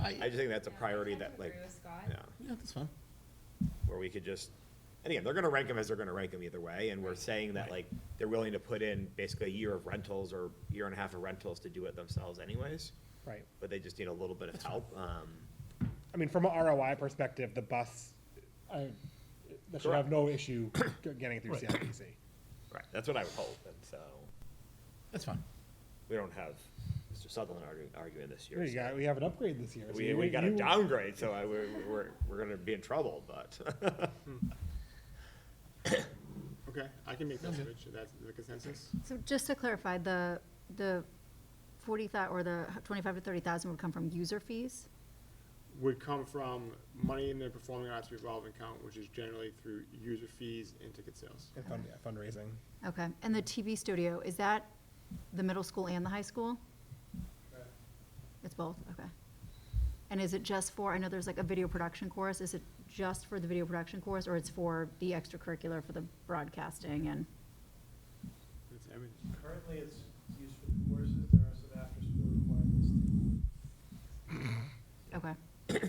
I, I just think that's a Yeah, I priority kind of that like, agree with Scott. yeah, yeah, that's fine. where we could just, and again, they're gonna rank them as they're gonna rank them either way, and we're saying that like, they're willing to put in basically a year of rentals or year and a half of rentals to do it themselves anyways, Right. but they just need a little bit of help, um, I mean, from a ROI perspective, the bus, I, that should have no issue getting it through CIPC. right, that's what I would hope, and so, That's fine. we don't have Mr. Sutherland arguing, arguing this year. We so- got, we have an upgrade this year. so We, you- we got a you- downgrade, so I, we're, we're, we're gonna be in trouble, but, Okay, I can make that switch, that's the consensus? So just to clarify, the, the forty thou, or the twenty-five to thirty thousand would come from user fees? Would come from money in the performing arts revolving account, which is generally through user fees and ticket sales. and fund- yeah, Fundraising. Okay, and the TV studio, is that the middle school and the high school? It's both, okay. And is it just for, I know there's like a video production course, is it just for the video production course, or it's for the extracurricular for the broadcasting and? That's everything. Currently, it's used for the courses, there are some after-school requirements. too. Okay,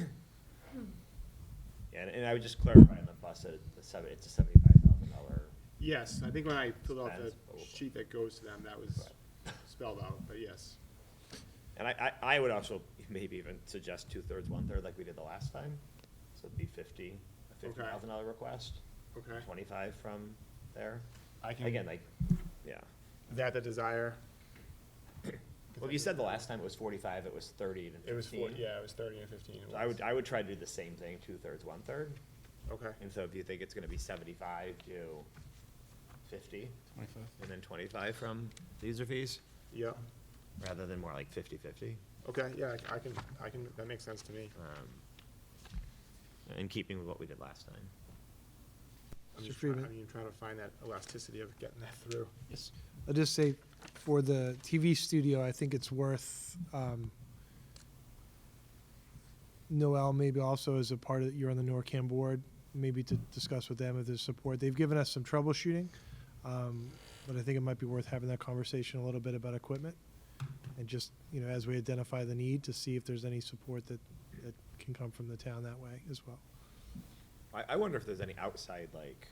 and, and I would just clarify on the bus that it's a seven, it's a seventy-five thousand dollar, Yes, I think when I filled out the Expense, but we'll- sheet that goes to them, that was spelled out, but yes. and I, I, I would also maybe even suggest two-thirds, one-third, like we did the last time. So it'd be fifty, a fifty thousand dollar request, Okay. twenty-five from there, I can. again, like, yeah. Is that the desire? Well, you said the last time it was forty-five, it was thirty and It was fifteen. four, yeah, it was thirty and fifteen. it So I was. would, I would try to do the same thing, two-thirds, one-third, Okay, and so if you think it's gonna be seventy-five, do fifty, Twenty-five. and then twenty-five from the user fees, yeah, rather than more like fifty-fifty. okay, yeah, I can, I can, that makes sense to me. um, in keeping with what we did last time. I'm Mr. just, try- Freeman. I mean, trying to find that elasticity of getting that through. Yes. I'll just say, for the TV studio, I think it's worth, um, Noel maybe also as a part of, you're on the NORCAM board, maybe to discuss with them if there's support. They've given us some troubleshooting, um, but I think it might be worth having that conversation a little bit about equipment. And just, you know, as we identify the need, to see if there's any support that, that can come from the town that way as well. I, I wonder if there's any outside, like,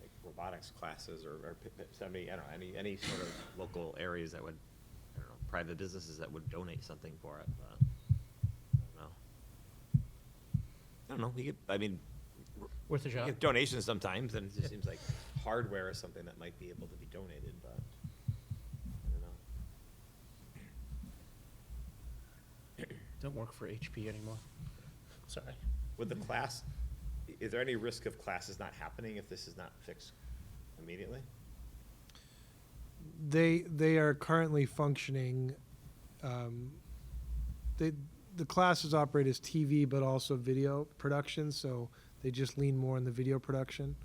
like robotics classes or, or p- p- somebody, I don't know, any, any sort of local areas that would, I don't know, private businesses that would donate something for it, but, I don't know. I don't know, we get, I mean, Worth a we shot. get donations sometimes, and it just seems like hardware is something that might be able to be donated, but, I don't know. Don't work for HP anymore. Sorry. Would the class, i- is there any risk of classes not happening if this is not fixed immediately? they they are currently functioning. Um, they the classes operate as TV, but also video production. So they just lean more on the video production,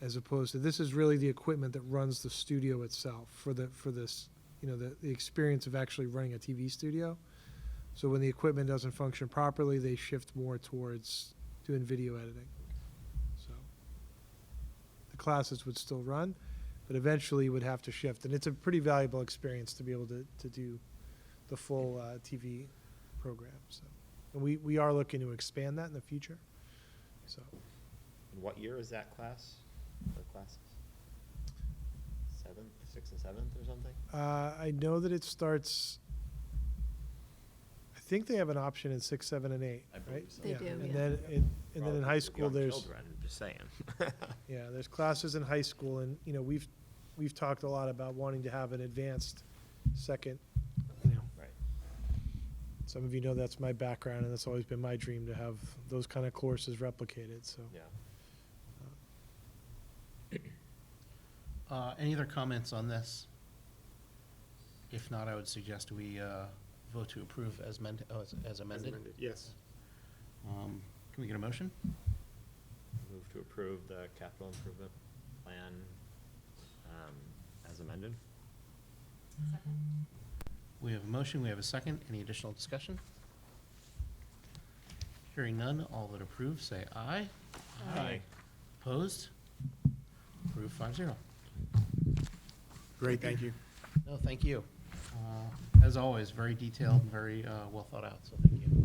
as opposed to this is really the equipment that runs the studio itself for the for this you know the, the experience of actually running a TV studio. So when the equipment doesn't function properly, they shift more towards doing video editing. So the classes would still run, but eventually would have to shift. And it's a pretty valuable experience to be able to, to do the full uh, TV program. So, and we, we are looking to expand that in the future. So, And what year is that class, or classes? Seventh, sixth and seventh or something? uh, I know that it starts. I think they have an option in six, seven, and eight, I believe right? so. They do, yeah. And then, it, and then in Probably high school, young there's. Children, just saying. Yeah, there's classes in high school, and, you know, we've, we've talked a lot about wanting to have an advanced second, you know. Right. Some of you know that's my background, and that's always been my dream to have those kind of courses replicated, so. Yeah. Uh, any other comments on this? If not, I would suggest we, uh, vote to approve as meant, oh, as- as As amended. amended, Yes, Um, can we get a motion? Move to approve the capital improvement plan, um, as amended? We have a motion, we have a second. Any additional discussion? Hearing none, all that approve, say aye. Aye. Opposed? Approved five zero. great, thank you. No, thank you. Uh, As always, very detailed and very uh, well thought out, so thank you.